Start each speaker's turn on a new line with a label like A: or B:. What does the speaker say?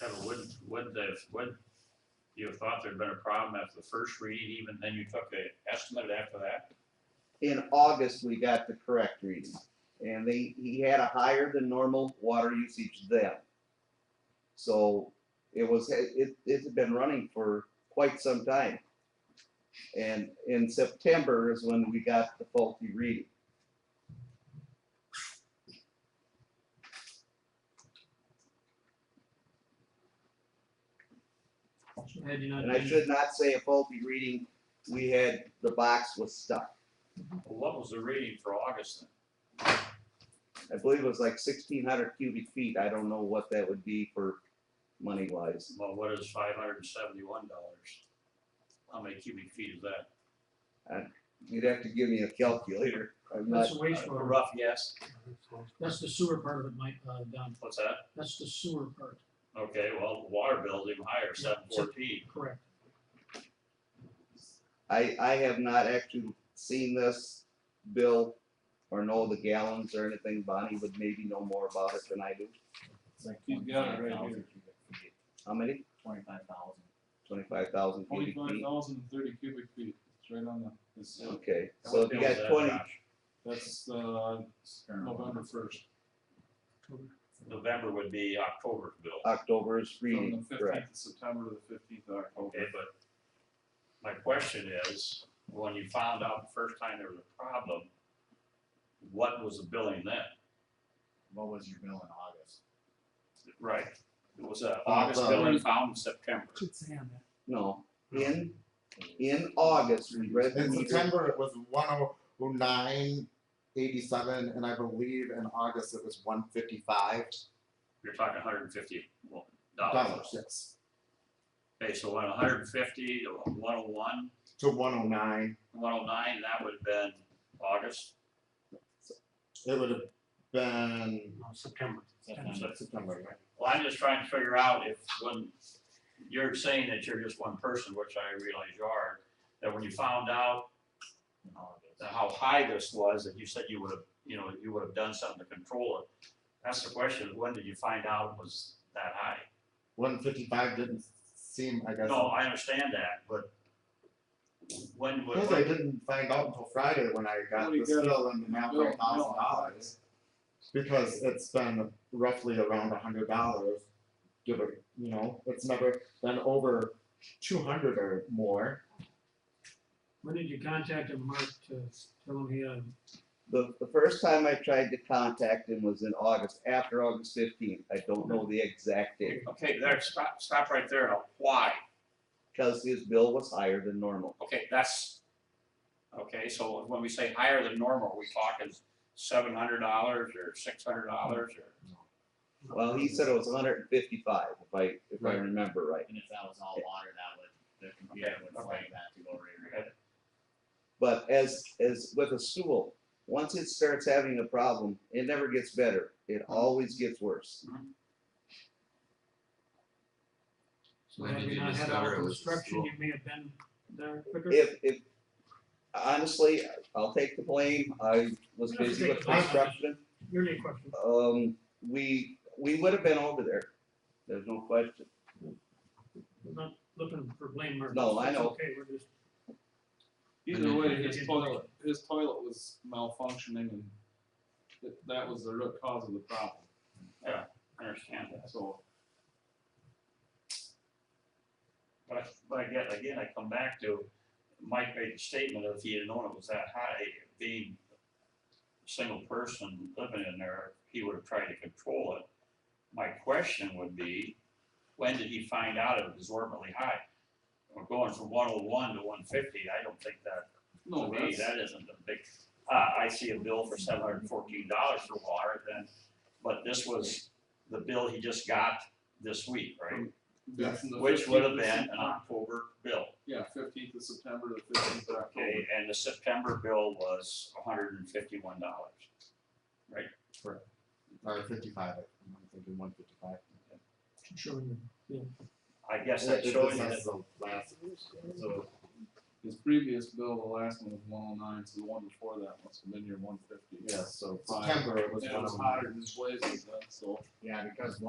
A: Kevin, wouldn't, wouldn't have, would you have thought there'd been a problem after the first reading, even then you took a estimate after that?
B: in August, we got the correct reading. And they, he had a higher than normal water usage then. So it was, it, it's been running for quite some time. And in September is when we got the faulty reading.
C: Had you not
B: And I
C: been-
B: should not say a faulty reading, we had, the box was stuck.
A: Well, What was the reading for August then?
B: I believe it was like sixteen hundred cubic feet. I don't know what that would be for money wise.
A: Well, what is five hundred and seventy-one dollars? How many cubic feet is that?
B: You'd have to give me a calculator. I'm not
C: That's the
A: A
C: wastewater,
A: Rough guess,
C: that's the sewer part of it, Mike, uh, Don,
A: what's that?
C: that's the sewer part,
A: Okay, well, the water bill's even higher, seven fourteen.
C: correct.
B: I, I have not actually seen this bill or know the gallons or anything. Bonnie would maybe know more about it than I do.
D: He's got it right here,
B: How many?
D: twenty-five thousand.
B: Twenty-five thousand cubic
D: Twenty-five
B: feet?
D: thousand and thirty cubic feet, it's right on the, it's, uh,
B: Okay, so if
A: What bill
B: you
A: is
B: got
A: that,
B: twenty,
A: Josh?
D: that's, uh, November first,
A: November would be October's bill.
B: October's
D: from the
B: reading, correct?
D: fifteenth of September to the fifteenth of October.
A: Okay, but my question is, when you found out the first time there was a problem, what was the billing then?
E: what was your bill in August?
A: Right. Uh, It was a August billing found in September.
F: Oh,
B: No, in, in August, we read the
E: In
B: meter.
E: September, it was one oh nine eighty-seven, and I believe in August it was one fifty-five
A: You're talking hundred and fifty
E: dollars,
A: dollars.
E: yes,
A: Okay, so went hundred and fifty to one oh one,
E: to one oh nine.
A: one oh nine, that would have been August,
E: It would have been,
C: September.
A: September. Well, I'm just trying to figure out if, when, you're saying that you're just one person, which I realize you are, that when you found out that how high this was, that you said you would have, you know, you would have done something to control it. That's the question, when did you find out it was that high?
E: one fifty-five didn't seem, I guess.
A: No, I understand that, but when
E: Because I
A: would,
E: didn't find out until Friday when I got
D: Nobody
E: this
D: got
E: bill in the amount of
D: Bill,
E: thousand
D: no.
E: dollars. Because it's been roughly around a hundred dollars, give or, you know, it's never been over two hundred or more.
C: When did you contact him, Mark, to tell him he had,
B: The, the first time I tried to contact him was in August, after August fifteenth. I don't know the exact date,
A: okay, there, stop, stop right there, now, why?
B: because his bill was higher than normal.
A: Okay, that's, okay, so when we say higher than normal, are we talking seven hundred dollars or six hundred dollars or?
B: Well, he said it was hundred and fifty-five, if I, if I
E: Right.
B: remember right.
G: And if that was all water, that would, the computer would
A: Okay,
G: flag that to go right.
B: But as, as with a stool, once it starts having a problem, it never gets better. It always gets worse.
C: so
F: When
C: had
F: did
C: you
F: you
C: not had our
F: discover it was
C: construction,
F: full?
C: you may have been there quicker.
B: If, if, honestly, I'll take the blame. I was busy with construction.
C: Your name question,
B: Um, we, we would have been over there. There's no question.
C: we're not looking for blame, Mark.
B: No, I
C: It's
B: know.
C: Okay, we're just,
D: Either way, his toilet, his toilet was malfunctioning and that, that was the root cause of the problem,
A: I understand that,
D: so.
A: but, I- but again, again, I come back to, Mike made the statement of if he had known it was that high, being a single person living in there, he would have tried to control it. My question would be, when did he find out it was abnormally high? We're going from one oh one to one fifty, I don't think that to
D: No,
A: me,
D: that's,
A: that isn't a big, uh, I see a bill for seven hundred and fourteen dollars for water then, but this was the bill he just got this week, right?
D: that's from the
A: Which would have
D: 15th of
A: been uh, an
D: September-
A: October bill,
D: Yeah, fifteenth of September to fifteenth of October.
A: okay, and the September bill was hundred and fifty-one dollars.
E: Or Uh, fifty-five, I'm thinking one fifty-five.
C: showing you, yeah.
A: I guess that's showing you that,
E: So,
D: His previous bill, the last one was one oh nine, so the one before that must have been your one fifty.
E: yeah, so
D: Five.
E: September it was
D: Yeah, it
E: one
D: was
E: oh nine.
D: hotter than his blazes, then, so.
E: Yeah, because